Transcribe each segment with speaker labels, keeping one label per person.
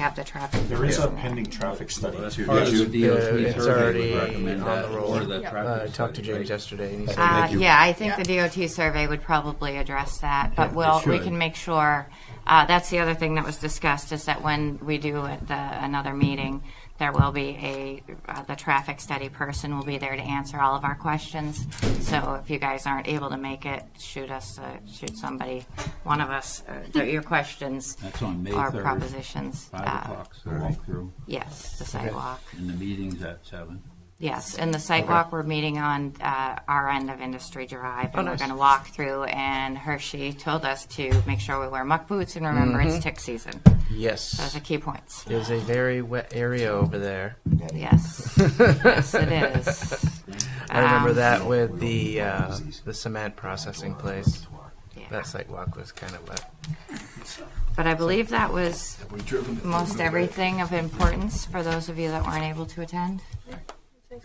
Speaker 1: have the traffic.
Speaker 2: There is a pending traffic study
Speaker 3: Well, that's
Speaker 2: too.
Speaker 3: part
Speaker 2: Did
Speaker 3: of
Speaker 2: you-
Speaker 3: the deal.
Speaker 4: Yeah,
Speaker 3: We
Speaker 4: it's
Speaker 3: certainly
Speaker 4: already
Speaker 3: would recommend
Speaker 4: on
Speaker 3: that
Speaker 4: the roll.
Speaker 3: or that
Speaker 4: Uh, I
Speaker 3: traffic
Speaker 4: talked to
Speaker 3: study,
Speaker 4: James
Speaker 3: right?
Speaker 4: yesterday, and he said,
Speaker 1: Uh, yeah, I think the DOT survey would probably address that, but we'll, we
Speaker 3: should.
Speaker 1: can make sure. Uh, that's the other thing that was discussed is that when we do the, another meeting, there will be a, uh, the traffic study person will be there to answer all of our questions. So if you guys aren't able to make it, shoot us, uh, shoot somebody, one of us, uh, th- your questions.
Speaker 3: That's on May
Speaker 1: Or
Speaker 3: 3rd,
Speaker 1: propositions.
Speaker 3: Five
Speaker 1: Uh,
Speaker 3: o'clock, so walk through,
Speaker 1: Yes, the sidewalk.
Speaker 3: and the meeting's at seven.
Speaker 1: Yes, in the site walk, we're meeting on uh, our end of Industry Drive, and we're
Speaker 4: Oh, nice.
Speaker 1: going to walk through. And Hershey told us to make sure we wear muck boots and remember
Speaker 4: Mm-hmm.
Speaker 1: it's tick season. Those
Speaker 4: yes.
Speaker 1: are key points.
Speaker 4: It was a very wet area over there.
Speaker 1: Yes, yes, it is.
Speaker 4: I remember
Speaker 1: Um,
Speaker 4: that with the uh, the cement processing place. That sidewalk was kind of wet.
Speaker 1: But I believe that was most everything of importance for those of you that weren't able to attend.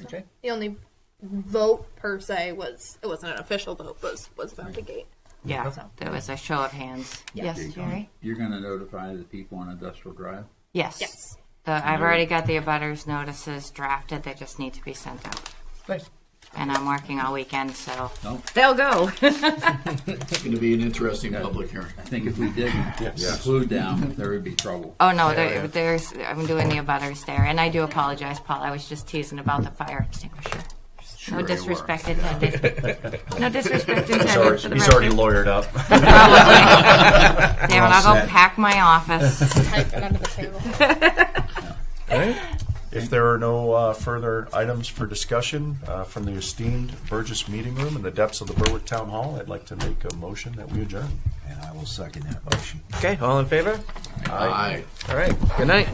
Speaker 5: Okay. The only vote per se was it wasn't an official vote, but was was about the gate.
Speaker 1: Yeah, there was a show of hands. Yes, Jerry?
Speaker 3: You're gonna notify the people on Industrial Drive?
Speaker 1: Yes.
Speaker 5: Yes.
Speaker 1: The, I've already got the abutters notices drafted. They just need to be sent out.
Speaker 4: Nice.
Speaker 1: And I'm working all weekend, so
Speaker 3: No.
Speaker 1: they'll go.
Speaker 6: It's going to be an interesting public hearing.
Speaker 3: I think if we did include them, there would be trouble.
Speaker 1: Oh no, there, there's I'm doing the abutters there, and I do apologize, Paul. I was just teasing about the fire extinguisher. No disrespect intended. No disrespect intended. for the
Speaker 2: He's already
Speaker 1: record.
Speaker 2: lawyered up.
Speaker 1: Probably. Damn it! I'll go pack my office.
Speaker 5: Typed it under the table.
Speaker 2: If there are no uh, further items for discussion uh, from the esteemed Burgess Meeting Room in the depths of the Berwick Town Hall, I'd like to make a motion that we adjourn.
Speaker 6: And I will second that motion.
Speaker 4: Okay, all in favor?
Speaker 6: Aye.
Speaker 4: All right. Good night.